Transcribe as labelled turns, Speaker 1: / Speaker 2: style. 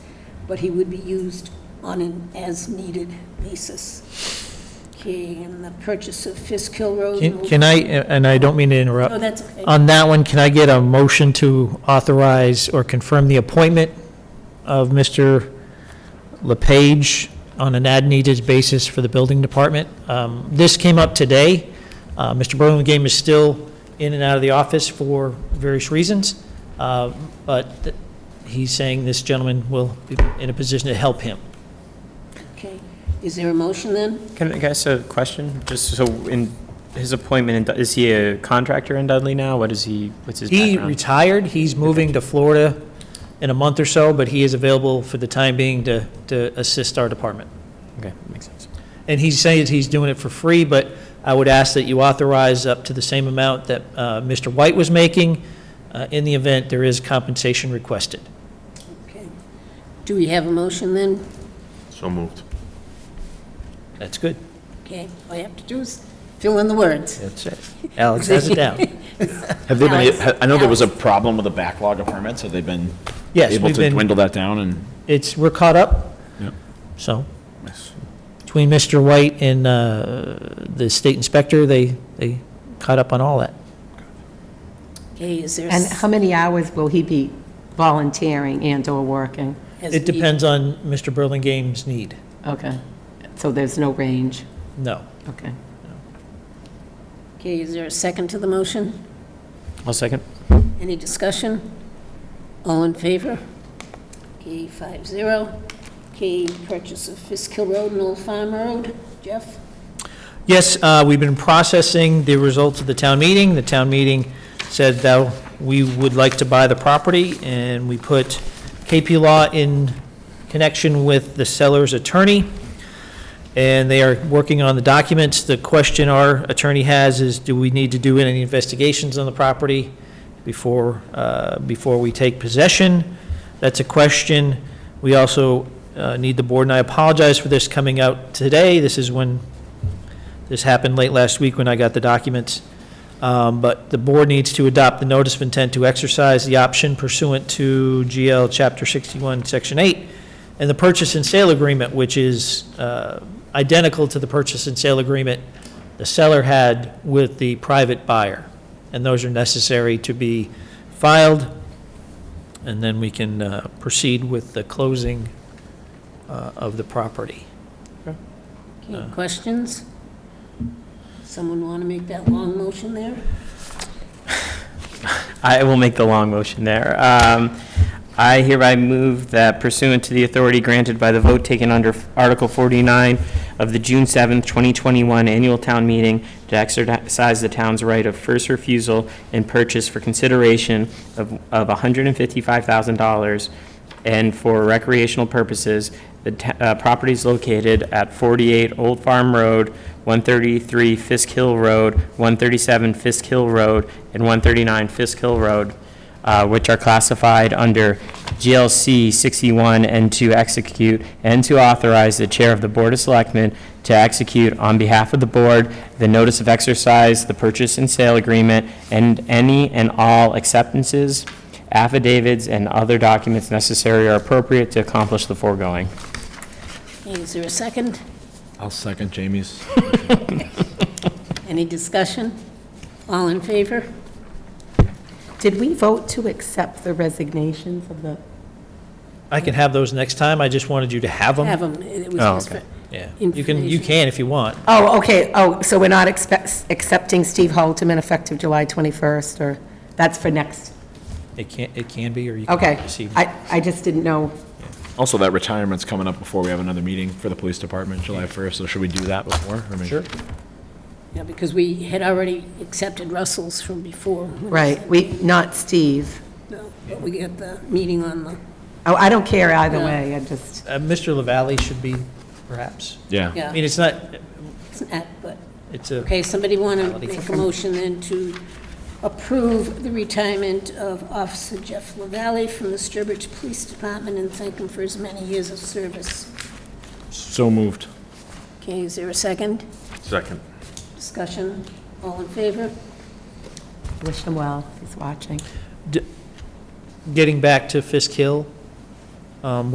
Speaker 1: but he would be used on an as-needed basis. Okay, and the purchase of Fisk Hill Road.
Speaker 2: Can can I, and I don't mean to
Speaker 1: Oh,
Speaker 2: interrupt, Uh,
Speaker 1: that's Mm-hmm. okay.
Speaker 2: on that one, can I get a motion to authorize or confirm the appointment of Mr. LePage on an ad-needed basis for the building department? Um, This came up today. Uh, Mr. Burlingame is still in and out of the office for various reasons, uh, but th- he's saying this gentleman will be in a position to help him.
Speaker 1: Okay. Is there a motion then?
Speaker 3: Can I can I ask a question? Just so in his appointment, in Dud- is he a contractor in Dudley now? What is he, what's his
Speaker 2: He
Speaker 3: background?
Speaker 2: retired, he's moving to Florida in a month or so, but he is available for the time being to, to assist our department.
Speaker 3: Okay, makes sense.
Speaker 2: And he says he's doing it for free, but I would ask that you authorize up to the same amount that uh, Mr. White was making uh, in the event there is compensation requested.
Speaker 1: Okay. Do we have a motion then?
Speaker 4: So moved.
Speaker 2: That's good.
Speaker 1: Okay, all you have to do is fill in the words.
Speaker 2: That's it. Alex has it down.
Speaker 5: Have they been,
Speaker 1: Alex-
Speaker 5: ha- I know there was a problem with the backlog of permits, have they been
Speaker 2: Yes,
Speaker 5: able
Speaker 2: we've
Speaker 5: to
Speaker 2: been,
Speaker 5: dwindle that down and?
Speaker 2: it's, we're caught up.
Speaker 5: Yep.
Speaker 2: So between Mr. White and uh, the state inspector, they, they caught up on all that.
Speaker 1: Okay, is there?
Speaker 6: And how many hours will he be volunteering and/or working?
Speaker 1: has
Speaker 2: It
Speaker 1: the-
Speaker 2: depends on Mr. Burlingame's need.
Speaker 6: Okay, so there's no range,
Speaker 2: No.
Speaker 6: okay.
Speaker 1: Okay, is there a second to the motion?
Speaker 3: I'll second.
Speaker 1: Any discussion? All in favor? Okay, five zero. Okay, purchase of Fisk Hill Road and Old Farm Road. Jeff?
Speaker 2: Yes, uh, we've been processing the results of the town meeting. The town meeting said that we would like to buy the property, and we put KP Law in connection with the seller's attorney, and they are working on the documents. The question our attorney has is, do we need to do any investigations on the property before, uh, before we take possession? That's a question. We also uh, need the board, and I apologize for this coming out today. This is when this happened late last week when I got the documents. Um, But the board needs to adopt the notice of intent to exercise the option pursuant to GL Chapter 61, Section 8, and the purchase and sale agreement, which is uh, identical to the purchase and sale agreement the seller had with the private buyer. And those are necessary to be filed, and then we can uh, proceed with the closing uh, of the property.
Speaker 1: Okay, questions? Someone want to make that long motion there?
Speaker 3: I will make the long motion there. Um, I hereby move that pursuant to the authority granted by the vote taken under Article 49 of the June 7th, 2021 Annual Town Meeting to exercise the town's right of first refusal and purchase for consideration of of $155,000 and for recreational purposes, the t- uh, properties located at 48 Old Farm Road, 133 Fisk Hill Road, 137 Fisk Hill Road, and 139 Fisk Hill Road, uh, which are classified under GLC 61, and to execute and to authorize the Chair of the Board of Selectmen to execute on behalf of the Board the notice of exercise, the purchase and sale agreement, and any and all acceptances, affidavits, and other documents necessary or appropriate to accomplish the foregoing.
Speaker 1: Okay, is there a second?
Speaker 5: I'll second Jamie's.
Speaker 1: Any discussion? All in favor?
Speaker 6: Did we vote to accept the resignations of the,
Speaker 2: I can have those next time, I just wanted you to have them.
Speaker 1: Have them. It was
Speaker 3: Oh,
Speaker 1: just for-
Speaker 3: okay.
Speaker 2: Yeah, you can, you
Speaker 1: Information.
Speaker 2: can if you want.
Speaker 6: oh, okay, oh, so we're not expect- accepting Steve Halterman effective July 21st, or, that's for next,
Speaker 2: It can, it can be, or you can.
Speaker 6: okay.
Speaker 2: receive-
Speaker 6: I, I just didn't know,
Speaker 5: Also, that retirement's coming up before we have another meeting for the police department, July 1st, so should we do that before? or maybe-
Speaker 2: Sure.
Speaker 1: Yeah, because we had already accepted Russell's from before.
Speaker 6: right, we, not Steve.
Speaker 1: No, But we got the meeting on the,
Speaker 6: Oh, I don't care either
Speaker 1: No.
Speaker 6: way, I just,
Speaker 2: Uh, Mr. LaValle should be, perhaps.
Speaker 5: Yeah.
Speaker 2: I
Speaker 1: yeah,
Speaker 2: mean, it's not,
Speaker 1: it's not, but.
Speaker 2: it's a,
Speaker 1: Okay, somebody want to
Speaker 2: Reality.
Speaker 1: make a motion then to approve the retirement of Officer Jeff LaValle from the Sturbridge Police Department and thank him for his many years of service.
Speaker 5: So moved.
Speaker 1: Okay, is there a second?
Speaker 4: Second.
Speaker 1: Discussion? All in favor?
Speaker 6: wish him well, if he's watching.
Speaker 2: getting back to Fisk Hill, um,